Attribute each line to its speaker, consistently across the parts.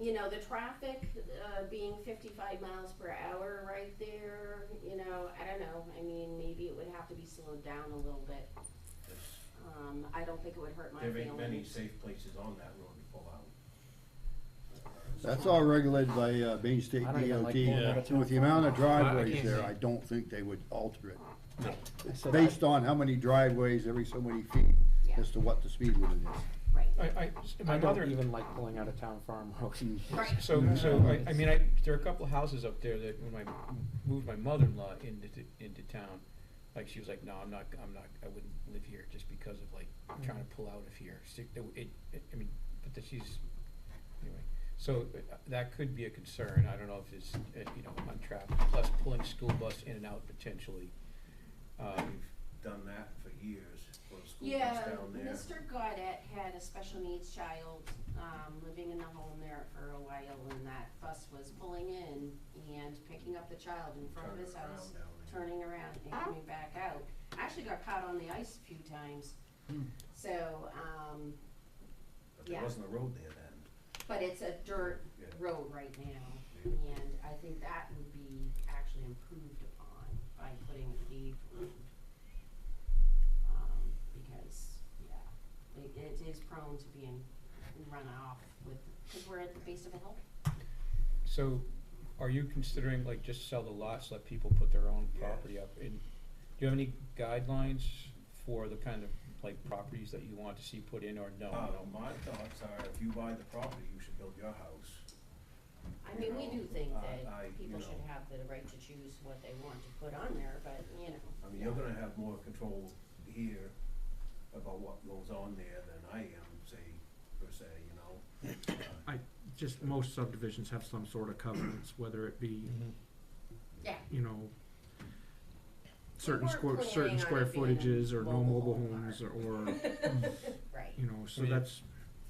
Speaker 1: you know, the traffic, uh, being fifty-five miles per hour right there, you know, I don't know, I mean, maybe it would have to be slowed down a little bit.
Speaker 2: There's-
Speaker 1: Um, I don't think it would hurt my
Speaker 2: There
Speaker 1: feelings.
Speaker 2: ain't many safe places on that road to pull out.
Speaker 3: That's all regulated by uh, Maine State
Speaker 4: I don't even
Speaker 3: DOT.
Speaker 4: like pulling over to
Speaker 3: And With the
Speaker 4: and from.
Speaker 3: amount of
Speaker 5: I
Speaker 3: driveways
Speaker 5: can't
Speaker 3: there,
Speaker 5: see.
Speaker 3: I don't think they would alter it.
Speaker 4: I said I-
Speaker 3: Based on how many driveways every so many feet
Speaker 1: Yeah.
Speaker 3: as to what the speed limit is.
Speaker 1: Right,
Speaker 5: I, I, my
Speaker 4: I
Speaker 5: mother,
Speaker 4: don't even like pulling out of town farm road.
Speaker 1: right,
Speaker 5: so, so, I, I mean, I, there are a couple of houses up there that when I moved my mother-in-law into, t- into town, like, she was like, no, I'm not, I'm not, I wouldn't live here just because of like, trying to pull out of here. She- It, it, I mean, but that she's, anyway, so uh, that could be a concern. I don't know if it's, uh, you know, on traffic, plus pulling school bus in and out potentially. Um,
Speaker 2: Done that for years, for school
Speaker 1: yeah,
Speaker 2: bus down there.
Speaker 1: Mr. Godet had a special needs child, um, living in the home there for a while, and that bus was pulling in and picking up the child in front of
Speaker 2: Turn
Speaker 1: his
Speaker 2: around
Speaker 1: house,
Speaker 2: down there.
Speaker 1: turning around and coming back out. Actually got caught on the ice a few times, so, um,
Speaker 2: But there
Speaker 1: yeah.
Speaker 2: wasn't a road there then.
Speaker 1: But it's a dirt
Speaker 2: Yeah.
Speaker 1: road right now, and I think that would be actually improved upon by putting a paved road. Um, because, yeah, it, it is prone to being run off with, cause we're at the base of a hill.
Speaker 5: So, are you considering like just sell the lots, let people put their own
Speaker 2: Yes.
Speaker 5: property up? And do you have any guidelines for the kind of like properties that you want to see put in or no?
Speaker 2: Uh,
Speaker 5: no?
Speaker 2: my thoughts are, if you buy the property, you should build your house.
Speaker 1: I mean, we do think
Speaker 2: I- I, you
Speaker 1: that people should
Speaker 2: know.
Speaker 1: have the right to choose what they want to put on there, but, you know,
Speaker 2: I mean, you're gonna have more control here about what goes on there than I am, say, per se, you know? Uh,
Speaker 6: just most subdivisions have some sort of covenants, whether it be,
Speaker 1: yeah.
Speaker 6: you know, certain
Speaker 1: weren't
Speaker 6: square, certain
Speaker 1: planning on
Speaker 6: square
Speaker 1: it being a
Speaker 6: footages or no
Speaker 1: mobile
Speaker 6: mobile
Speaker 1: home
Speaker 6: homes or, or,
Speaker 1: Right.
Speaker 6: you know, so
Speaker 5: mean,
Speaker 6: that's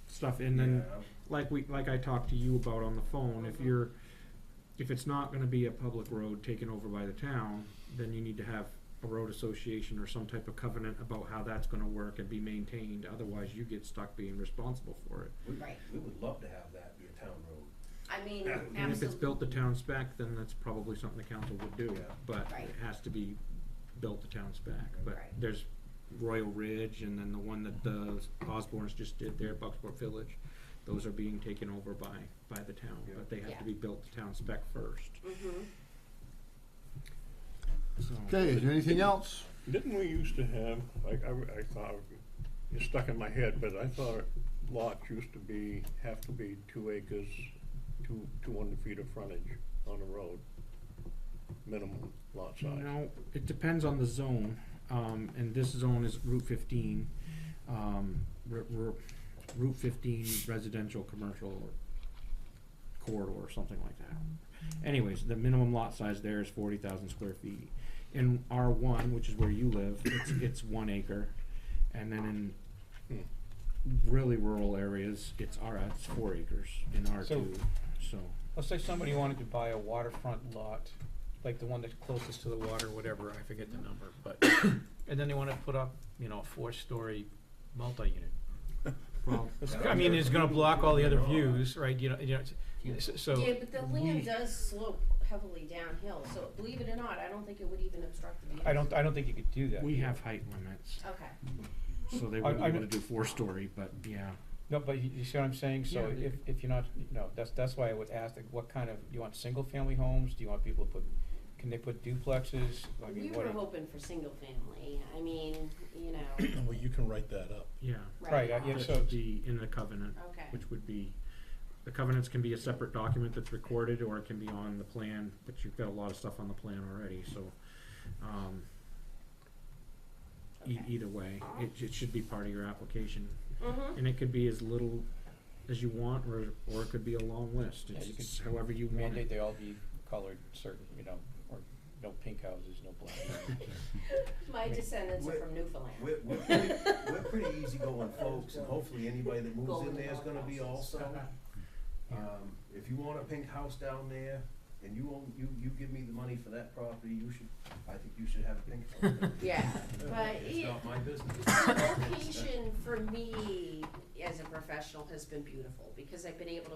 Speaker 6: stuff. And then,
Speaker 2: Uh, yeah,
Speaker 6: like we, like I talked to you about on the phone, if
Speaker 1: Mhm.
Speaker 6: you're, if it's not gonna be a public road taken over by the town, then you need to have a road association or some type of covenant about how that's gonna work and be maintained, otherwise you get stuck being responsible for it.
Speaker 2: we-
Speaker 1: Right.
Speaker 2: We would love to have that be a town road.
Speaker 1: I mean,
Speaker 2: And if
Speaker 1: absolutely.
Speaker 6: And if it's built to town spec, then that's probably something the council would do,
Speaker 2: Yeah.
Speaker 6: but
Speaker 1: Right.
Speaker 6: it has to be built to town spec. But
Speaker 1: Right.
Speaker 6: there's Royal Ridge and then the one that the
Speaker 2: Mm-hmm.
Speaker 6: Osborne's just did there, Bucksport Village, those are being taken over by, by the town,
Speaker 2: Yeah.
Speaker 6: but they have
Speaker 1: Yeah.
Speaker 6: to be built to town spec first,
Speaker 1: Mhm.
Speaker 6: so.
Speaker 3: Okay, is there anything else?
Speaker 7: Didn't we used to have, like, I, I thought, it's stuck in my head, but I thought lots used to be, have to be two acres, two, two hundred feet of frontage on a road. Minimum lot size.
Speaker 6: No, it depends on the zone, um, and this zone is Route fifteen, um, r- r- Route fifteen residential, commercial, or corridor, or something like that. Anyways, the minimum lot size there is forty thousand square feet. In R one, which is where you live, it's, it's one acre, and then in really rural areas, it's R, it's four acres in R two, so.
Speaker 5: Let's say somebody wanted to buy a waterfront lot, like the one that's closest to the water, whatever, I forget the number, but, and then they wanna put up, you know, a four-story multi-unit.
Speaker 6: Well,
Speaker 5: It's-
Speaker 2: Yeah.
Speaker 5: I mean, it's gonna block all the other views, right, you know, you know, it's- so,
Speaker 1: Yeah,
Speaker 5: so,
Speaker 1: but the land does slope heavily downhill, so believe it or not, I don't think it would even obstruct the view.
Speaker 5: I don't, I don't think you could do that.
Speaker 6: we have height limits.
Speaker 1: Okay,
Speaker 6: So they
Speaker 5: I-
Speaker 6: wouldn't be
Speaker 5: I
Speaker 6: able to do
Speaker 5: kn-
Speaker 6: four story, but yeah.
Speaker 5: No, but you, you see what I'm saying, so
Speaker 6: Yeah.
Speaker 5: if, if you're not, you know, that's, that's why I would ask, like, what kind of, do you want single-family homes, do you want people to put, can they put duplexes, I
Speaker 1: we
Speaker 5: mean, what,
Speaker 1: were
Speaker 5: are-
Speaker 1: hoping for single family, I mean, you know,
Speaker 8: Well, you can write that up.
Speaker 6: Yeah.
Speaker 1: right,
Speaker 5: Right, I- yeah,
Speaker 6: That
Speaker 5: so-
Speaker 6: should be in the covenant,
Speaker 1: okay,
Speaker 6: which would be, the covenants can be a separate document that's recorded or it can be on the plan, but you've got a lot of stuff on the plan already, so, um, e-
Speaker 5: e,
Speaker 1: Okay.
Speaker 6: either way, it, it should be part of your application.
Speaker 1: mhm,
Speaker 6: And it could be as little as you want or, or it could be a long list.
Speaker 5: Yeah,
Speaker 6: It's
Speaker 5: you could
Speaker 6: it's however you want
Speaker 5: mandate
Speaker 6: it.
Speaker 5: they all be colored certain, you know, or no pink houses, no black.
Speaker 1: my descendants are
Speaker 2: Wait.
Speaker 1: from Newfoundland.
Speaker 2: We're, we're pretty, we're pretty easygoing folks, and hopefully anybody that moves in there is gonna be also. Um, if you want a pink house down there, and you own, you, you give me the money for that property, you should, I think you should have a pink house. down there.
Speaker 1: Yeah, but
Speaker 2: It's
Speaker 1: it,
Speaker 2: not my business.
Speaker 1: the location for me as a professional has been beautiful, because I've been able to